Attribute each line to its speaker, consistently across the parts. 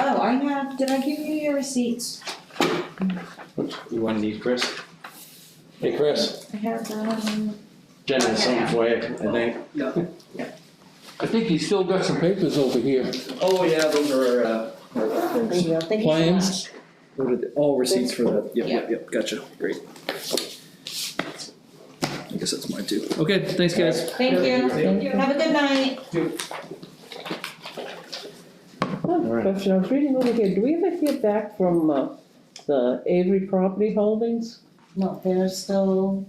Speaker 1: Oh, I have, did I give you your receipts?
Speaker 2: You want these, Chris? Hey, Chris,
Speaker 1: I have, um,
Speaker 2: Jen has something for you, I think.
Speaker 3: I think he's still got some papers over here.
Speaker 4: Oh, yeah, those are, uh,
Speaker 1: there you go, thank you so
Speaker 3: Plans?
Speaker 4: what are the, all receipts for that, yep, yep, yep, gotcha, great. I guess that's mine too, okay, thanks guys.
Speaker 1: much. Thank you, have a good night.
Speaker 2: Alright.
Speaker 5: Question, I was reading over here, do we ever hear back from uh, the Avery Property Holdings?
Speaker 1: No, they're still,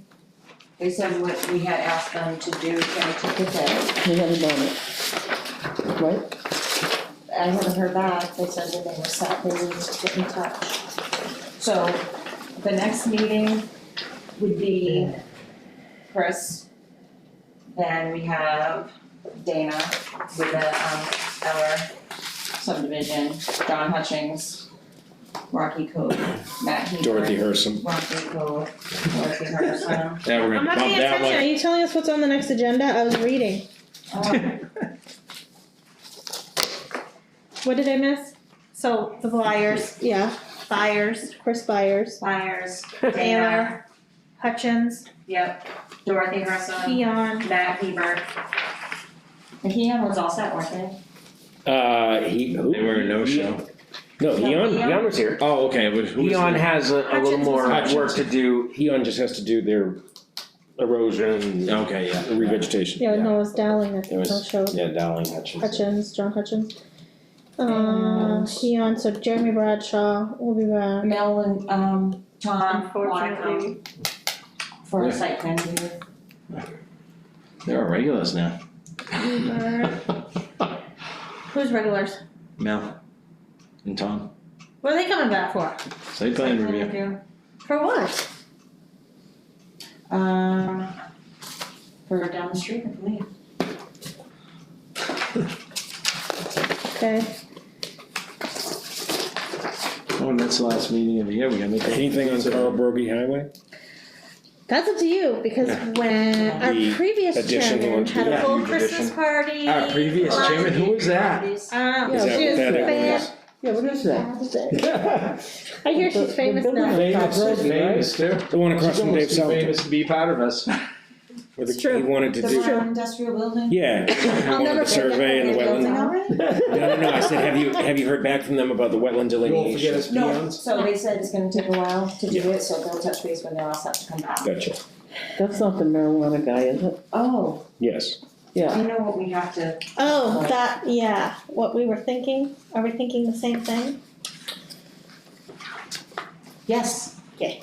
Speaker 1: they said what we had asked them to do, can I take it there?
Speaker 5: We haven't done it. Right?
Speaker 1: I haven't heard back, they said that they were set, they would just get in touch. So, the next meeting would be Chris. Then we have Dana with the, um, our subdivision, John Hutchings, Rocky Cove, Matt Heath.
Speaker 2: Dorothy Herson.
Speaker 1: Rocky Cove, Dorothy Herson.
Speaker 2: Yeah, we're gonna
Speaker 6: I'm not
Speaker 2: bump
Speaker 6: paying
Speaker 2: that
Speaker 6: attention. Are
Speaker 2: one.
Speaker 6: you telling us what's on the next agenda? I was reading.
Speaker 1: Um,
Speaker 6: What did I miss? So the Flyers, yeah, Byers, Chris Byers,
Speaker 1: Myers, Dana,
Speaker 6: Taylor, Hutchins,
Speaker 1: yep, Dorothy Herson,
Speaker 6: Keon.
Speaker 1: Matt Hebert. And Keon was all set, weren't they?
Speaker 7: Uh, he, who?
Speaker 2: They were a no-show.
Speaker 7: No,
Speaker 1: No,
Speaker 7: Eon,
Speaker 1: Eon.
Speaker 7: Eon was here.
Speaker 2: Oh, okay, but who was
Speaker 7: Eon
Speaker 2: it?
Speaker 7: has a, a
Speaker 6: Hutchins
Speaker 7: little
Speaker 6: was
Speaker 7: more
Speaker 2: Hutchins.
Speaker 7: work to do. Eon just has to do their erosion,
Speaker 2: Okay, yeah.
Speaker 7: revegetation.
Speaker 6: Yeah, no, it was Dowling that
Speaker 7: It was-
Speaker 6: no show.
Speaker 7: Yeah, Dowling Hutchins.
Speaker 6: Hutchins, John Hutchins. Uh,
Speaker 1: And-
Speaker 6: Keon, so Jeremy Bradshaw will be back.
Speaker 1: Mel and, um, Tom wanna come
Speaker 6: Unfortunately,
Speaker 1: for a
Speaker 2: Yeah.
Speaker 1: site plan review.
Speaker 2: They're all regulars now.
Speaker 6: Hubert. Who's regulars?
Speaker 2: Mel and Tom,
Speaker 6: What are they coming back for?
Speaker 2: site plan review.
Speaker 6: For what?
Speaker 1: Um, for down the street, I believe.
Speaker 6: Okay.
Speaker 2: Oh, and that's the last meeting of the year, we gotta make. a-
Speaker 7: Anything on Carl Brogy Highway?
Speaker 6: That's up to you because when our
Speaker 7: The
Speaker 6: previous
Speaker 7: additional
Speaker 6: chairman had a
Speaker 2: yeah,
Speaker 6: full
Speaker 7: huge
Speaker 6: Christmas
Speaker 7: addition.
Speaker 6: party.
Speaker 2: Our previous
Speaker 6: lots-
Speaker 2: chairman, who was that?
Speaker 6: I don't know,
Speaker 5: Is
Speaker 6: Ah, she was
Speaker 5: that what that
Speaker 6: famous.
Speaker 5: Yeah, what is that?
Speaker 6: I hear
Speaker 5: The-
Speaker 6: she's
Speaker 5: the
Speaker 6: famous
Speaker 5: building
Speaker 6: now.
Speaker 2: Famous,
Speaker 5: Brogy,
Speaker 2: famous too.
Speaker 7: The one across
Speaker 2: She's
Speaker 7: from Dave
Speaker 2: almost too
Speaker 7: Southwick.
Speaker 2: famous to be part of us.
Speaker 7: where the-
Speaker 5: It's true.
Speaker 7: He wanted to
Speaker 1: The
Speaker 7: do,
Speaker 1: brown industrial building?
Speaker 7: yeah, he
Speaker 6: I'll
Speaker 7: wanted
Speaker 6: never
Speaker 7: the survey and the
Speaker 6: forget that
Speaker 7: wetland.
Speaker 1: Building already?
Speaker 7: No, no, no, I said, have you, have you heard back from them about the wetland
Speaker 2: You won't forget
Speaker 7: delineation?
Speaker 2: us
Speaker 1: No,
Speaker 2: peons.
Speaker 1: so they said it's gonna take a while to do it, so they'll touch base when they're all set to come back.
Speaker 7: Gotcha,
Speaker 5: That's not the marijuana guy, is it?
Speaker 1: Oh,
Speaker 7: yes.
Speaker 5: Yeah.
Speaker 1: you know what we have to,
Speaker 6: Oh, that, yeah, what we were thinking, are we thinking the same thing?
Speaker 1: yes,
Speaker 5: Okay.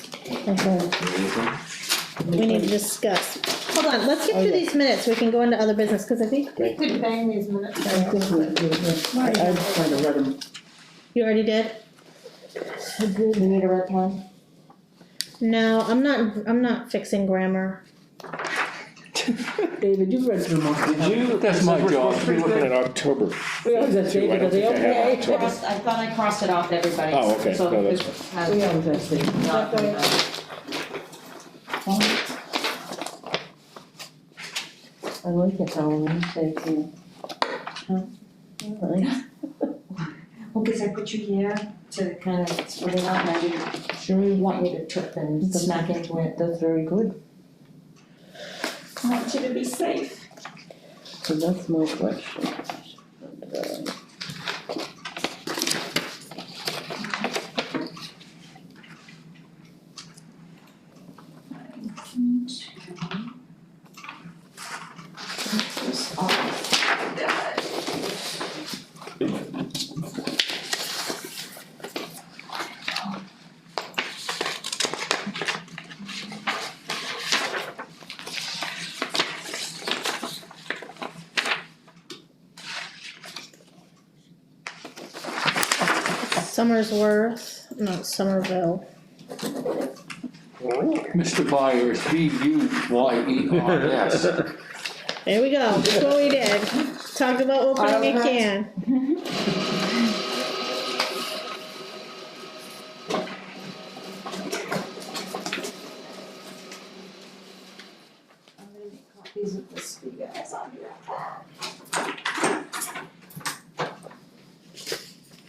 Speaker 6: We need to discuss. Hold on, let's get
Speaker 5: Oh,
Speaker 6: through
Speaker 5: yeah.
Speaker 6: these minutes, we can go into other business, cause I think we
Speaker 7: Right.
Speaker 6: could bang these minutes.
Speaker 5: I think we- we- I, I just kind of read them.
Speaker 6: You already did?
Speaker 1: we need a red pen.
Speaker 6: No, I'm not, I'm not fixing grammar.
Speaker 5: David, you've read through most of them.
Speaker 3: That's my job.
Speaker 7: We're looking at October.
Speaker 5: We always have
Speaker 7: Two, I
Speaker 5: David,
Speaker 7: don't
Speaker 5: are they
Speaker 7: think I have
Speaker 1: Yeah, I
Speaker 5: okay?
Speaker 7: October.
Speaker 1: crossed, I thought I crossed it off everybody.
Speaker 7: Oh, okay.
Speaker 1: so
Speaker 7: No,
Speaker 1: it
Speaker 7: that's
Speaker 1: has
Speaker 5: We always have David.
Speaker 1: not been done.
Speaker 5: I like it how we say things. Alright,
Speaker 1: Well, cause I put you here to kind of spread it out, and I didn't
Speaker 5: Sure, we want-
Speaker 1: want you to trip and smack into it.
Speaker 5: that's very good,
Speaker 1: I want you to be safe.
Speaker 5: so that's my question.
Speaker 1: Just all that.
Speaker 6: Summersworth, no, Somerville.
Speaker 3: Mr. Byers, B U Y E R S.
Speaker 6: There we go, that's what we did, talk about what we
Speaker 5: Uh-huh.
Speaker 1: Autocorrect.
Speaker 6: can.